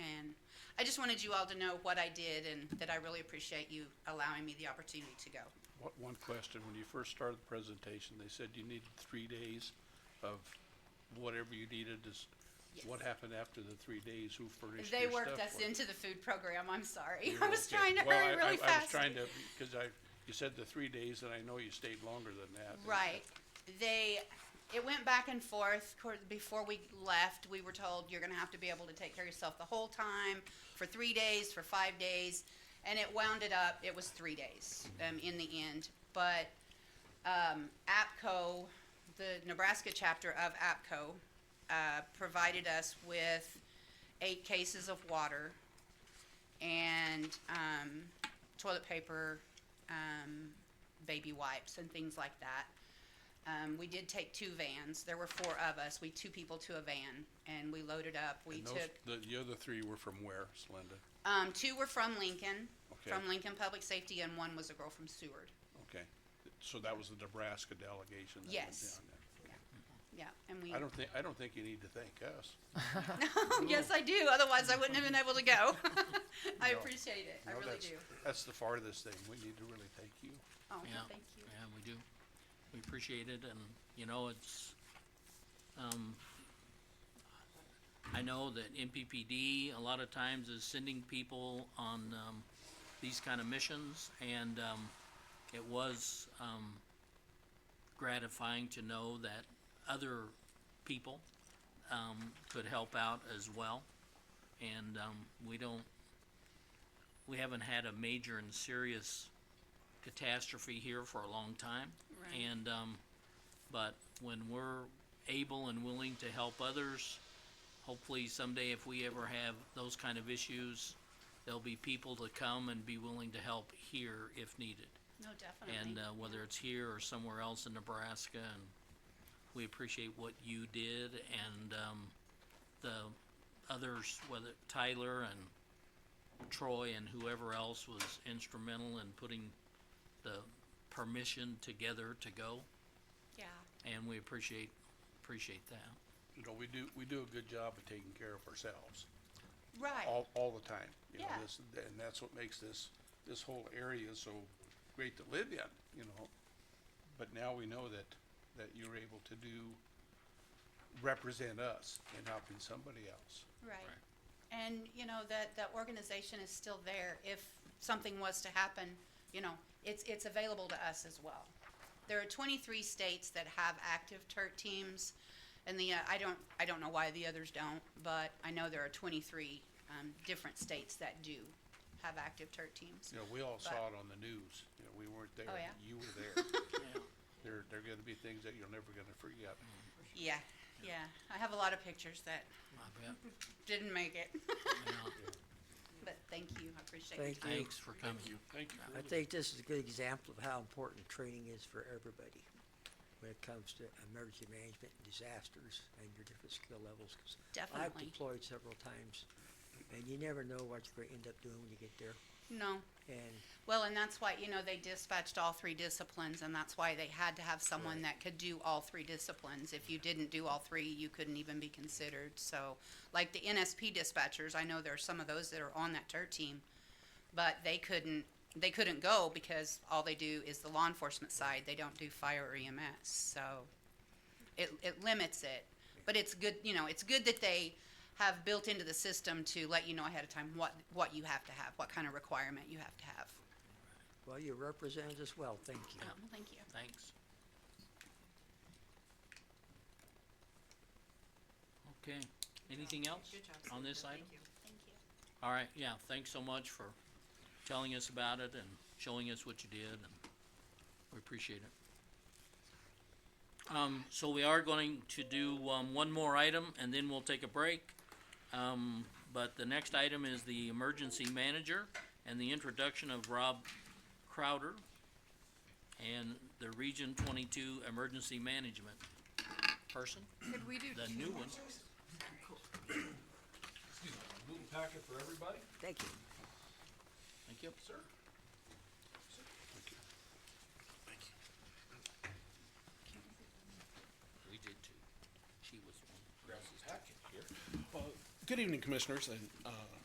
I just wanted you all to know what I did and that I really appreciate you allowing me the opportunity to go. One- One question, when you first started the presentation, they said you needed three days of whatever you needed. Does- What Yes. happened after the three days? Who furnished They your worked stuff us for you? into the food program, I'm sorry. You're I was okay. trying to Well, hurry I- really I- I was fast. trying to, because I, you said the three days, and I know you stayed longer than that. and- Right. They, it went back and forth. Cour- Before we left, we were told you're going to have to be able to take care of yourself the whole time for three days, for five days. And it wounded up, it was three days um, in the end. But um, APCO, the Nebraska chapter of APCO, uh, provided us with eight cases of water and um, toilet paper, um, baby wipes, and things like that. Um, we did take two vans. There were four of us. We two people to a van, and we loaded up. We And took those, the, the other three were from where, Slenda? um, two were from Lincoln, Okay. from Lincoln Public Safety, and one was a girl from Seward. Okay. So that was the Nebraska delegation that went Yes. down there. Yeah, and we. Oh, I don't think, I don't think you need to thank us. yes, I do. Otherwise, I wouldn't have been able to go. I No. appreciate it. I No, really that's- do. That's the farthest thing. We need to really thank you. Oh, Yeah, thank you. yeah, we do. We appreciate it and, you know, it's, um, I know that MPPD a lot of times is sending people on, um, these kind of missions and, um, it was, um, gratifying to know that other people, um, could help out as well. And, um, we don't, we haven't had a major and serious catastrophe here for a long time. Right. And, um, but when we're able and willing to help others, hopefully someday if we ever have those kind of issues, there'll be people to come and be willing to help here if needed. No, definitely. And, uh, whether it's here or somewhere else in Nebraska, and we appreciate what you did and, um, the others, whether Tyler and Troy and whoever else was instrumental in putting the permission together to go, yeah. and we appreciate, appreciate that. You know, we do, we do a good job of taking care of ourselves. Right. all, all the time. You know, Yeah. this, and that's what makes this, this whole area so great to live in, you know? But now we know that, that you're able to do, represent us in helping somebody else. Right. And, you know, that, that organization is still there. If something was to happen, you know, it's, it's available to us as well. There are twenty-three states that have active TERT teams, and the, uh, I don't, I don't know why the others don't, but I know there are twenty-three, um, different states that do have active TERT teams. You know, we all saw But- it on the news, you know, we weren't there, Oh, yeah. you were there. Yeah. There, there are gonna be things that you're never gonna forget. Yeah, yeah. I have a lot of pictures that I bet, didn't make it, yeah. but thank you. I appreciate your Thank time. you. Thanks for coming. Thank you. for I the- think this is a good example of how important training is for everybody when it comes to emergency management and disasters and your different skill levels. 'cause I've Definitely. deployed several times, and you never know what you're gonna end up doing when you get there. No. And Well, and that's why, you know, they dispatched all three disciplines, and that's why they had to have someone that could do all three disciplines. If you didn't do all three, you couldn't even be considered. So, like the NSP dispatchers, I know there are some of those that are on that TERT team, but they couldn't, they couldn't go because all they do is the law enforcement side. They don't do fire or EMS, so it, it limits it. But it's good, you know, it's good that they have built into the system to let you know ahead of time what, what you have to have, what kind of requirement you have to have. Well, you represented us well, thank you. Oh, well, thank you. Thanks. Okay, anything else Good job, Oh, on this item? Thank you. All right, yeah, thanks so much for telling us about it and showing us what you did, and we appreciate it. Um, so we are going to do, um, one more item, and then we'll take a break. Um, but the next item is the emergency manager and the introduction of Rob Crowder and the Region Twenty-two Emergency Management person, Could we do the two? new one. Excuse me, a little packet for everybody. Thank you. Thank you. Sir. We did two. She was one. Grab some packet here. Good evening, Commissioners and uh,